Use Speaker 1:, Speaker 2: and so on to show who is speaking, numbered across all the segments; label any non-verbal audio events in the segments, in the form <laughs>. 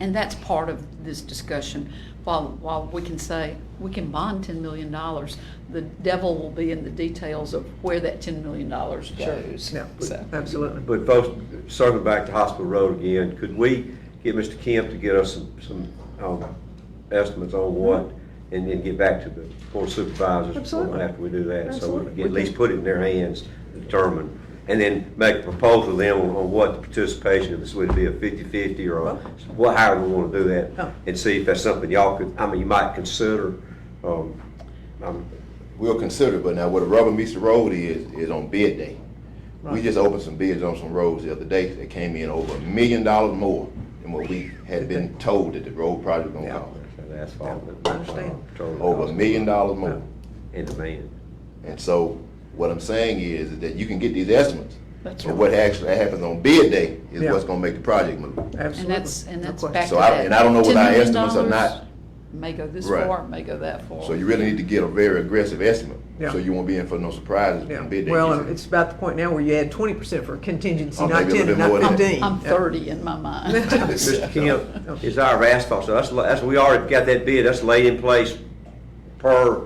Speaker 1: And that's part of this discussion. While, while we can say, we can bond ten million dollars, the devil will be in the details of where that ten million dollars goes.
Speaker 2: Yeah,
Speaker 1: So,
Speaker 2: absolutely.
Speaker 3: But folks, circling back to Hospital Road again, could we get Mr. Kemp to get us some, some, um, estimates on what? And then get back to the board of supervisors
Speaker 2: Absolutely.
Speaker 3: after we do that, so we
Speaker 2: Absolutely.
Speaker 3: can at least put it in their hands, to determine. And then make a proposal to them on on what the participation, if this would be a fifty-fifty or a- what, however we wanna do
Speaker 2: Oh.
Speaker 3: that. And see if that's something y'all could, I mean, you might consider, um, um,
Speaker 4: We'll consider, but now where the rubber meets the road is, is on bid day. We
Speaker 2: Right.
Speaker 4: just opened some bids on some roads the other day that came in over a million dollars more than what we had been told that the road project was
Speaker 2: Yeah.
Speaker 4: gonna cost.
Speaker 3: asphalt.
Speaker 2: I understand.
Speaker 4: Over a million dollars more.
Speaker 3: In demand.
Speaker 4: And so what I'm saying is, is that you can get these estimates.
Speaker 1: That's
Speaker 4: But
Speaker 1: right.
Speaker 4: what actually happens on bid day is
Speaker 2: Yeah.
Speaker 4: what's gonna make the project move.
Speaker 1: And
Speaker 2: Absolutely.
Speaker 1: that's, and
Speaker 2: No
Speaker 1: that's
Speaker 2: question.
Speaker 1: back to
Speaker 4: So I-
Speaker 1: that.
Speaker 4: and I don't know
Speaker 1: $10
Speaker 4: what our
Speaker 1: million
Speaker 4: estimates are not.
Speaker 1: May go this
Speaker 4: Right.
Speaker 1: far, may go that far.
Speaker 4: So you really need to get a very aggressive estimate.
Speaker 2: Yeah.
Speaker 4: So you won't be in for no surprises
Speaker 2: Yeah,
Speaker 4: when bid day
Speaker 2: well,
Speaker 4: gets here.
Speaker 2: it's about the point now where you add twenty percent for a contingency,
Speaker 4: Oh,
Speaker 2: not
Speaker 4: maybe a
Speaker 2: ten, and
Speaker 4: little bit more
Speaker 2: not
Speaker 4: than that.
Speaker 2: fifteen.
Speaker 1: I'm thirty in my
Speaker 2: <laughs>
Speaker 1: mind.
Speaker 3: Mr. Kemp, is our asphalt, so that's, that's, we already got that bid, that's laid in place per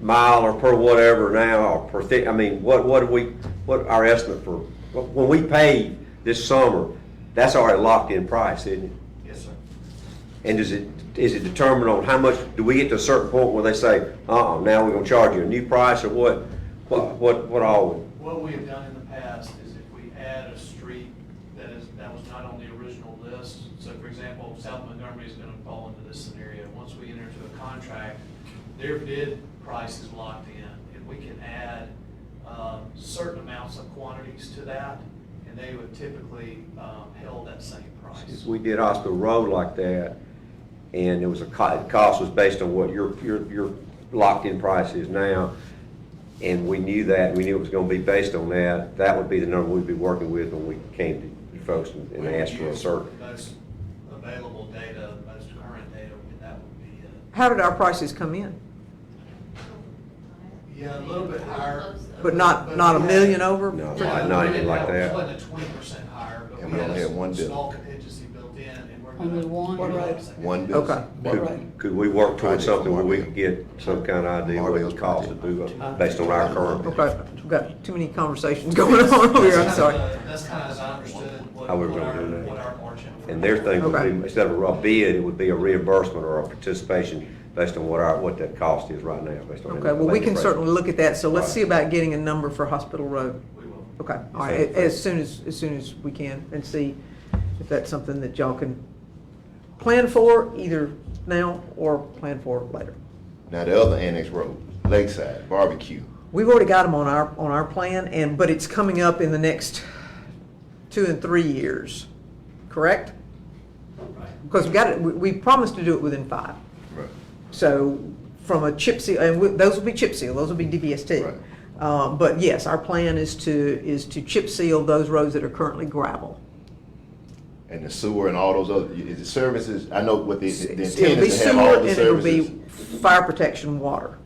Speaker 3: mile or per whatever now, or per thi, I mean, what, what do we, what our estimate for, when we pay this summer, that's already locked in price, isn't it?
Speaker 5: Yes, sir.
Speaker 3: And is it, is it determined on how much, do we get to a certain point where they say, uh-uh, now we're gonna charge you a new price, or what, what, what, what all?
Speaker 5: What we have done in the past is if we add a street that is, that was not on the original list, so for example, South Montgomery is gonna fall into this scenario. Once we enter into a contract, their bid price is locked in, and we can add, um, certain amounts of quantities to that, and they would typically, um, held that same
Speaker 3: If
Speaker 5: price.
Speaker 3: we did Hospital Road like that, and it was a, co- the cost was based on what your, your, your locked-in price is now, and we knew that, we knew it was gonna be based on that, that would be the number we'd be working with when we came to the folks and and
Speaker 5: We would
Speaker 3: asked for a
Speaker 5: use
Speaker 3: certain.
Speaker 5: Most available data, most current data, and that would be it.
Speaker 2: How did our prices come in?
Speaker 5: Yeah, a little bit higher.
Speaker 2: But not, not a million over?
Speaker 3: No.
Speaker 2: For-
Speaker 3: not- not anything like that.
Speaker 5: It wasn't a twenty percent higher, but
Speaker 4: And
Speaker 5: we
Speaker 4: we
Speaker 5: had
Speaker 4: only had one
Speaker 5: a
Speaker 4: bid.
Speaker 5: small contingency built in, and we're gonna.
Speaker 1: Only one.
Speaker 5: we're gonna-
Speaker 4: One bid.
Speaker 2: Okay.
Speaker 3: Could, could we work towards something where we could get some kind of idea what it would cost to do, it based on our current?
Speaker 2: Okay, we've got too many conversations <laughs> going on over here, Oh, I'm
Speaker 5: That's
Speaker 2: sorry.
Speaker 5: kinda the- That's kind of as I understood what,
Speaker 3: How we're
Speaker 5: what
Speaker 3: gonna
Speaker 5: our,
Speaker 3: do that.
Speaker 5: what our margin. for-
Speaker 3: And their thing would
Speaker 2: Okay.
Speaker 3: be, instead of a bid, it would be a reimbursement or a participation based on what our, what that cost is right now, based on.
Speaker 2: Okay, well, we can
Speaker 3: inflation.
Speaker 2: certainly look at that, so let's
Speaker 3: Right.
Speaker 2: see about getting a number for Hospital Road.
Speaker 5: We will.
Speaker 2: Okay, all right,
Speaker 3: Okay.
Speaker 2: as soon as, as soon as we can, and see if that's something that y'all can plan for, either now or plan for later.
Speaker 4: Now the other annex road, Lakeside Barbecue.
Speaker 2: We've already got them on our, on our plan, and, but it's coming up in the next two and three years, correct?
Speaker 5: Right.
Speaker 2: Because we got it, we, we promised to do it within five.
Speaker 4: Right.
Speaker 2: So from a chip seal, and we- those will be chip seal, those will be DBST.
Speaker 4: Right.
Speaker 2: Um, But yes, our plan is to, is to chip seal those roads that are currently gravel.
Speaker 4: And the sewer and all those other, is it services? I know what the, the
Speaker 2: It'll
Speaker 4: intent
Speaker 2: be
Speaker 4: is to have
Speaker 2: sewer
Speaker 4: all
Speaker 2: and
Speaker 4: the
Speaker 2: it'll be
Speaker 4: services.
Speaker 2: fire protection water.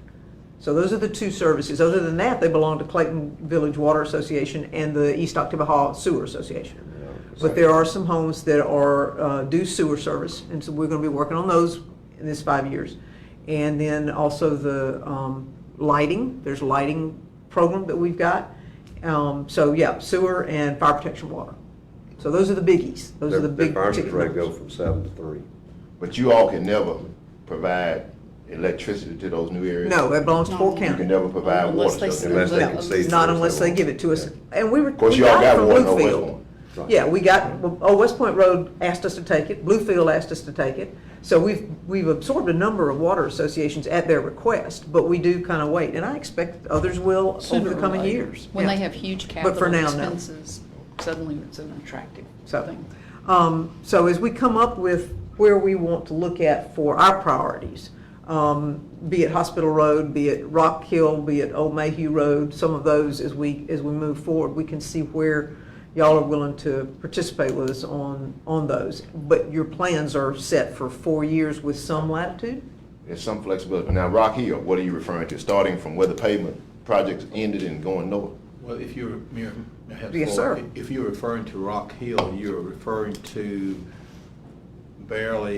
Speaker 2: So those are the two services. Other than that, they belong to Clayton Village Water Association and the East Octavia Hall Sewer Association. But there are some homes that are, uh, do sewer service, and so we're gonna be working on those in this five years. And then also the, um, lighting, there's a lighting program that we've got. Um, so yeah, sewer and fire protection water. So those are the biggies. Those are
Speaker 3: Their-
Speaker 2: the
Speaker 3: their
Speaker 2: big
Speaker 3: fire
Speaker 2: ticket
Speaker 3: rate go
Speaker 2: numbers.
Speaker 3: from seven to three.
Speaker 4: But you all can never provide electricity to those new areas?
Speaker 2: No, it belongs to
Speaker 1: No.
Speaker 2: Fort
Speaker 4: You can
Speaker 2: County.
Speaker 4: never provide
Speaker 1: Unless
Speaker 4: water.
Speaker 1: they-
Speaker 4: to
Speaker 3: Unless they
Speaker 2: No,
Speaker 3: can see.
Speaker 2: Not unless they give it to us. And we were.
Speaker 4: Of course,
Speaker 2: we
Speaker 4: you all
Speaker 2: got it
Speaker 4: got
Speaker 2: from
Speaker 4: one, no West
Speaker 2: Bluefield.
Speaker 4: one.
Speaker 3: Right.
Speaker 2: Yeah, we got, well, oh, West Point Road asked us to take it, Bluefield asked us to take it. So we've, we've absorbed a number of water associations at their request, but we do kind of wait. And I expect others will
Speaker 1: Sooner
Speaker 2: over the
Speaker 1: or
Speaker 2: coming
Speaker 1: later.
Speaker 2: years.
Speaker 1: When
Speaker 2: Yeah.
Speaker 1: they have huge
Speaker 2: But for
Speaker 1: capital
Speaker 2: now, no.
Speaker 1: expenses, suddenly it's an attractive
Speaker 2: So,
Speaker 1: thing.
Speaker 2: um, so as we come up with where we want to look at for our priorities, um, be it Hospital Road, be it Rock Hill, be it Old Mayhew Road, some of those as we, as we move forward, we can see where y'all are willing to participate with us on, on those. But your plans are set for four years with some latitude?
Speaker 4: There's some flexibility. Now, Rock Hill, what are you referring to? Starting from where the pavement projects ended and going north?
Speaker 6: Well, if you're, Mayor, may I have the
Speaker 2: Yes,
Speaker 6: floor?
Speaker 2: sir.
Speaker 6: If you're referring to Rock Hill, you're referring to barely